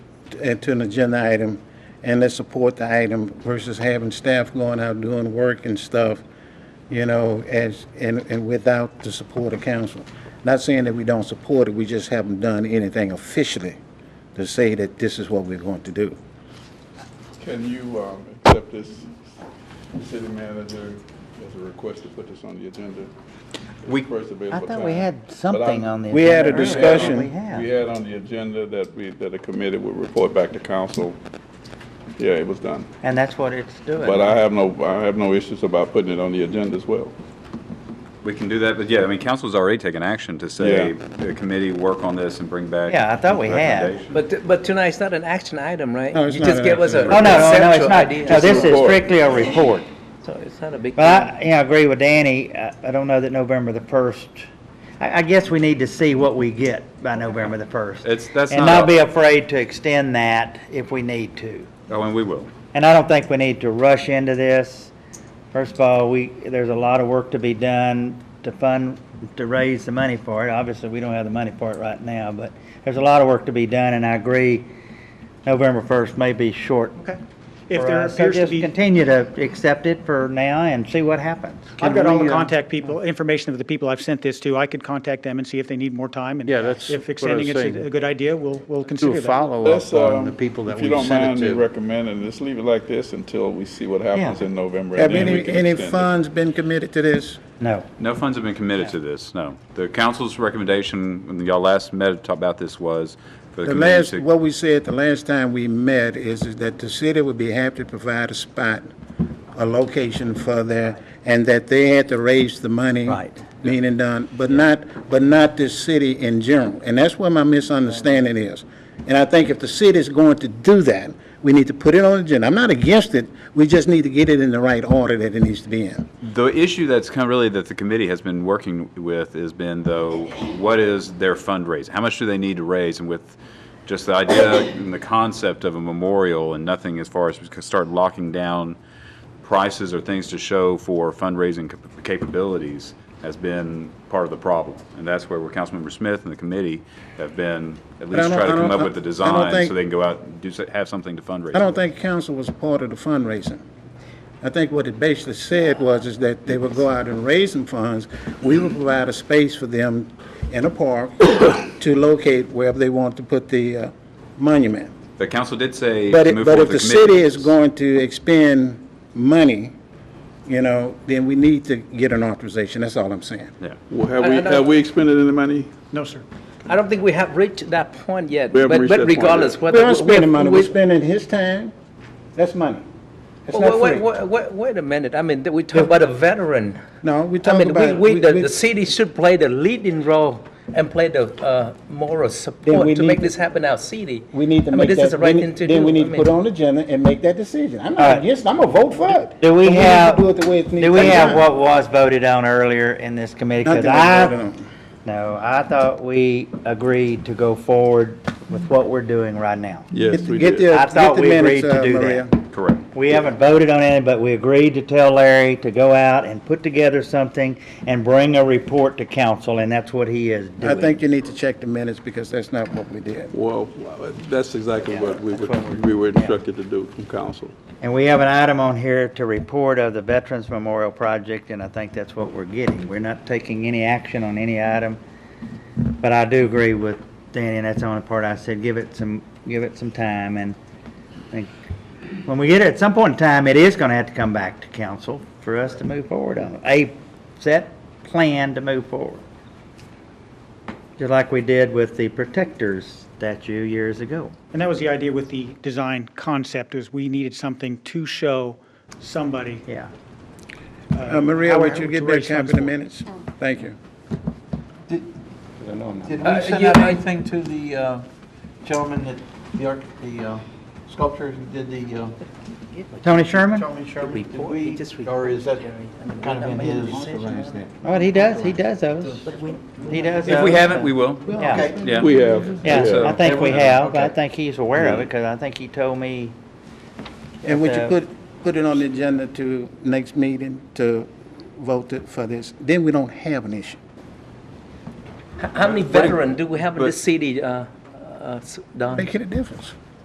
into an agenda item and let's support the item versus having staff going out doing work and stuff, you know, as, and, and without the support of council. Not saying that we don't support it, we just haven't done anything officially to say that this is what we're going to do. Can you um, accept this city manager as a request to put this on the agenda? We- First I available thought we time. had But I'm- something on the. We had a agenda we had earlier. discussion. on- We have. We had on the agenda that we, that the committee would report back to council. Yeah, it was done. And that's what it's doing. But I have no, I have no issues about putting it on the agenda as well. We can do that, but yeah, I mean, council's already taken action to say Yeah. the committee work on this and bring back. Yeah, I thought we had. recommendations. But, but tonight's not an action item, right? No, it's You not just an gave us a action Oh, no, no, no, it's conceptual not. idea. No, this is report. strictly a report. So it's not a big deal. But I, you know, I agree with Danny. I, I don't know that November the first, I, I guess we need to see what we get by November the first. It's- that's And not not a- be afraid to extend that if we need to. Oh, and we will. And I don't think we need to rush into this. First of all, we, there's a lot of work to be done to fund, to raise the money for it. Obviously, we don't have the money for it right now, but there's a lot of work to be done, and I agree, November 1st may be short. Okay. If for there us. So appears to just be, continue to accept it for now and see what happens. I've got Can all the we, uh, contact people, information of the people I've sent this to. I could contact them and see if they need more time. and Yeah, that's If what I extending was it's saying. a- a good idea, we'll, we'll do consider that. a follow-up Let's, on um, the people that if you we don't mind sent me it to. recommending, just leave it like this until we see what happens Yeah. in November. and Have then we any, can any extend it. funds been committed to this? No. No funds have been committed to this, no. The council's recommendation, when y'all last met, to talk about this was for the The committee last, to. what we said the last time we met is is that the city would be happy to provide a spot, a location for their, and that they had to raise the money. Right. Meaning done, but not, but not this city in general. And that's where my misunderstanding is. And I think if the city is going to do that, we need to put it on the agenda. I'm not against it, we just need to get it in the right order that it needs to be in. The issue that's kind of really that the committee has been working with has been though, what is their fundraising? How much do they need to raise? And with just the idea and the concept of a memorial and nothing as far as we could start locking down prices or things to show for fundraising cap- capabilities has been part of the problem. And that's where where Councilmember Smith and the committee have been at I least don't- try to I come don't- up with the I- I don't design think- so they can go out and do, so- have something to fundraise. I don't with. think council was a part of the fundraising. I think what it basically said was is that they would go out and raise some funds. We would provide a space for them in a park to locate wherever they want to put the uh, monument. The council did say. But to it, move but forward if the with committee city with is this. going to expend money, you know, then we need to get an authorization. That's all I'm saying. Yeah. Well, Have I- we, I don't- have we expended any money? No, sir. I don't think we have reached that point yet. We haven't But, reached but that point yet. regardless, We whether. aren't spending money, we're we- spending his time. That's money. That's Wait, not wait, free. wait, wait, wait a minute. I mean, we talk about a veteran. No, we I talking mean, we, about. we, the, we- the city should play the leading role and play the, uh, moral we support to need make to- this happen in our city. We need to I mean, make that. This is the right we need- thing to do. Then we I need to mean- put on the agenda and make that decision. I'm All not right. against, it. I'm gonna vote for it. Do we But need to have, do it the way it needs do to we be have done. what was voted on earlier in this committee? 'Cause Nothing was I- voted on. No, I thought we agreed to go forward with what we're doing right now. Yes, Get the- we get did. the- I get thought the we minutes, agreed to uh, do that. Maria. Correct. We haven't voted on it, but we agreed to tell Larry to go out and put together something and bring a report to council, and that's what he is I doing. think you need to check the minutes because that's not what we did. Well, that's exactly what we were, that's what we're- we were instructed to do from council. And we have an item on here to report of the Veterans Memorial Project, and I think that's what we're getting. We're not taking any action on any item, but I do agree with Danny, and that's the only part I said, give it some, give it some time, and I think, when we get it, at some point in time, it is gonna have to come back to council for us to move forward on it. A set plan to move forward. Just like we did with the Protectors statue years ago. And that was the idea with the design concept, is we needed something to show somebody. Yeah. Uh, Maria, how- would you get to that raise copy funds of the for it. minutes? Thank you. Did Uh, we send yeah, out I- anything to the uh, gentleman that, the arch, the uh, sculptor who did the, uh, Tony Sherman? Charlie Sherman? Did Report, he we, just or is that reported, Jerry. I mean, kind of in we're his? not making a decision. Well, he does, he does those. He does If we those. haven't, we will. Yeah, Okay. Yeah. We have. yeah, I think we have, I Okay. think he's aware of it, because I think he told me, And would you Uh, put, put it on the agenda to next meeting to vote it for this? Then we don't have an issue. How many veteran do we have in but- this city, uh, uh, s- Don? Making a difference.